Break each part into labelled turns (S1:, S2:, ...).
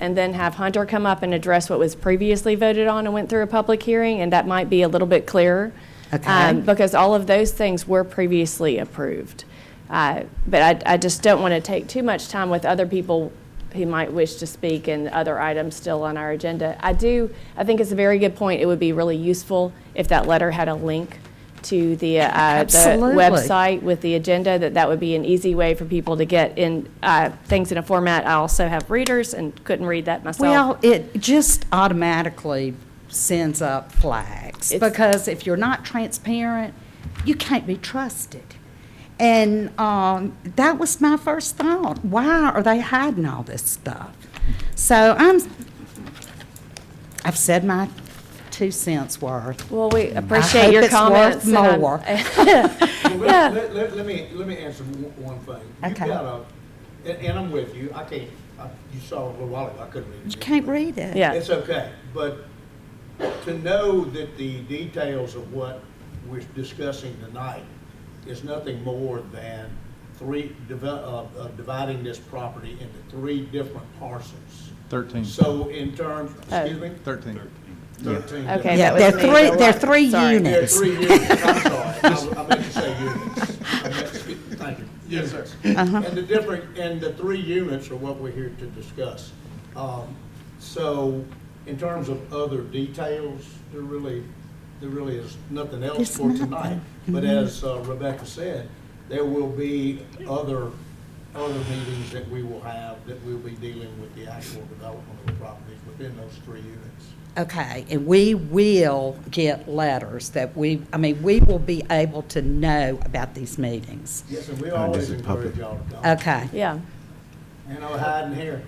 S1: and then have Hunter come up and address what was previously voted on and went through a public hearing, and that might be a little bit clearer.
S2: Okay.
S1: um, Because all of those things were previously approved. Uh, But I, I just don't want to take too much time with other people who might wish to speak and other items still on our agenda. I do, I think it's a very good point. It would be really useful if that letter had a link to the, uh, the
S2: Absolutely.
S1: website with the agenda, that that would be an easy way for people to get in, uh, things in a format. I also have readers and couldn't read that myself.
S2: Well, it just automatically sends up flags
S1: It's-
S2: because if you're not transparent, you can't be trusted. And um, that was my first thought. Why are they hiding all this stuff? So I'm, I've said my two cents worth.
S1: Well, we appreciate your comments.
S2: I
S1: and um, I'm-
S2: hope it's worth more.
S3: Well, Let, let- let, let me, let me answer one one thing. You've
S2: Okay.
S3: got a, and, and I'm with you, I can't, I- you saw a little while ago, I couldn't read it.
S2: You can't read it.
S1: Yeah.
S3: It's okay, but to know that the details of what we're discussing tonight is nothing more than three, divi- uh, uh, dividing this property into three different parcels.
S4: 13.
S3: So in terms, excuse me?
S4: 13.
S3: Thirteen.
S1: Okay.
S2: Yeah,
S1: that was
S2: they're
S1: me.
S2: three, they're three
S1: Sorry.
S3: Yeah,
S2: units.
S3: three units, I'm sorry, I I meant to say units. I meant to speak- Thank you. Yes, sir. And the different, and the three units are what we're here to discuss. Um, So in terms of other details, there really, there really is nothing else
S2: There's
S3: for
S2: nothing.
S3: tonight. But as uh, Rebecca said, there will be other, other meetings that we will have that we'll be dealing with the actual development of the properties within those three units.
S2: Okay, and we will get letters that we, I mean, we will be able to know about these meetings.
S3: Yes, and we always encourage y'all to come.
S2: Okay,
S1: Yeah.
S3: Ain't no hiding here.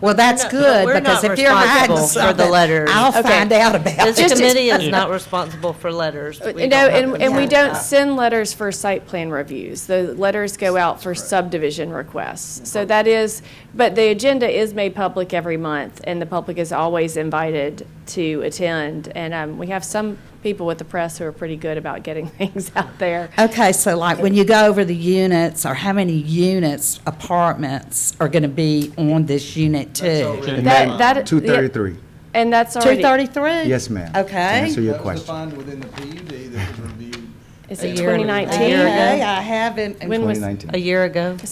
S2: well, that's
S5: not-
S2: good,
S5: we're not
S2: because if you're hiding
S5: responsible for the
S2: something,
S5: letter.
S2: I'll
S1: Okay.
S2: find out about
S5: This
S2: it.
S5: committee is not responsible for letters.
S1: Uh, No,
S5: We don't have uh,
S1: and,
S5: to
S1: and we
S5: do
S1: don't
S5: that.
S1: send letters for site plan reviews. The letters go out for subdivision requests. So that is, but the agenda is made public every month, and the public is always invited to attend. And um, we have some people with the press who are pretty good about getting things out there.
S2: Okay, so like, when you go over the units, or how many units, apartments are gonna be on this unit too?
S4: And
S1: That-
S4: ma'am,
S1: that- yeah,
S6: 233.
S1: And that's already.
S2: Two thirty-three?
S6: Yes, ma'am. To
S2: Okay.
S6: answer your
S7: That was
S6: question.
S7: defined within the PUD that was reviewed.
S1: It's a
S7: And-
S1: 2019.
S5: year ago.
S2: Okay, I haven't,
S1: When was-
S6: 2019.
S5: A year ago.
S1: So,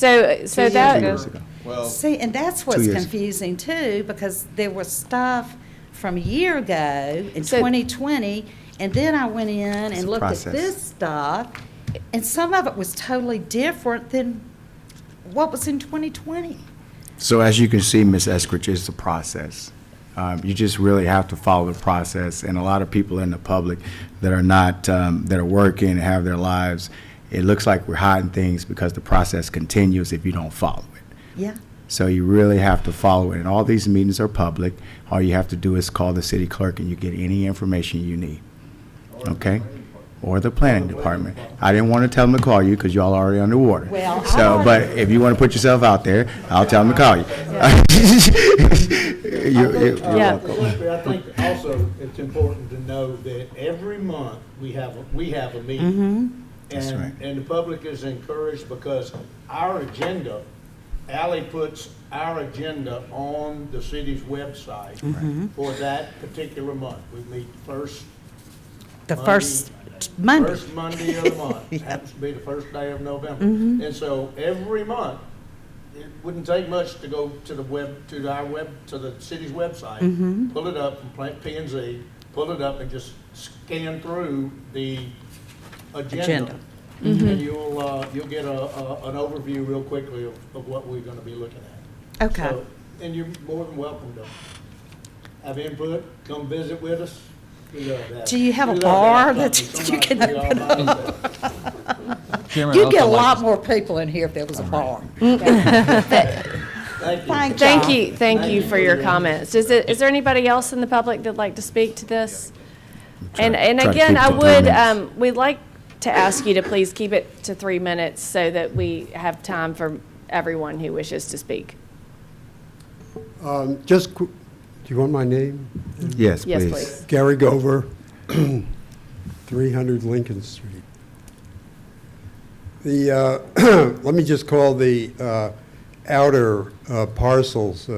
S1: so
S5: years
S1: that.
S6: Two years ago.
S7: Well,
S2: See, and that's what's
S6: years.
S2: confusing too, because there was stuff from a year ago in
S1: So-
S2: 2020, and then I went in
S6: It's
S2: and
S6: a
S2: looked at
S6: process.
S2: this stuff, and some of it was totally different than what was in 2020.
S6: So as you can see, Ms. Eskridge, it's a process. Um, You just really have to follow the process, and a lot of people in the public that are not, um, that are working and have their lives, it looks like we're hiding things because the process continues if you don't follow it.
S2: Yeah.
S6: So you really have to follow it, and all these meetings are public. All you have to do is call the city clerk, and you get any information you need, okay? Or the planning department. I didn't want to tell them to call you, because y'all are already underwater.
S2: Well, I
S6: So,
S2: already-
S6: but if you want to put yourself out there, I'll tell them to call you. You- you- you're
S1: Yeah.
S6: welcome.
S3: I think also it's important to know that every month we have, a- we have a
S2: Mm-hmm.
S3: meeting.
S6: That's right.
S3: And, and the public is encouraged because our agenda, Ally puts our agenda on the city's website
S2: Mm-hmm.
S3: for that particular month. We meet first.
S2: The
S3: Monday-
S2: first Monday.
S3: First Monday of the month, happens to be the first day of November. And so every month, it wouldn't take much to go to the web, to our web, to the city's website, pull it up from Pla- P and Z, pull it up and just scan through the
S2: Agenda.
S3: agenda. And you'll, uh, you'll get a, a, an overview real quickly of, of what we're gonna be looking at.
S2: Okay.
S3: So- And you're more than welcome to have input, come visit with us. We love that.
S2: Do you have a
S3: We love to
S2: bar
S3: have
S2: that
S3: something.
S2: you can
S3: Somebody
S2: open
S3: we all like.
S4: Chairman, I'd
S2: You'd get a
S4: also like
S2: lot
S4: to-
S2: more people in here if there was a bar.
S3: Thank you.
S2: Thank
S1: Thank you, thank you for your comments. Is it, is there anybody else in the public that'd like to speak to this? And, and
S6: Try to
S1: again,
S6: keep
S1: I
S6: the
S1: would,
S6: comments.
S1: um, we'd like to ask you to please keep it to three minutes so that we have time for everyone who wishes to speak.
S8: Um, Just, qu- do you want my name?
S6: Yes,
S1: Yes,
S6: please.
S1: please.
S8: Gary Gover, 300 Lincoln Street. The, uh, let me just call the uh, outer uh, parcels, uh,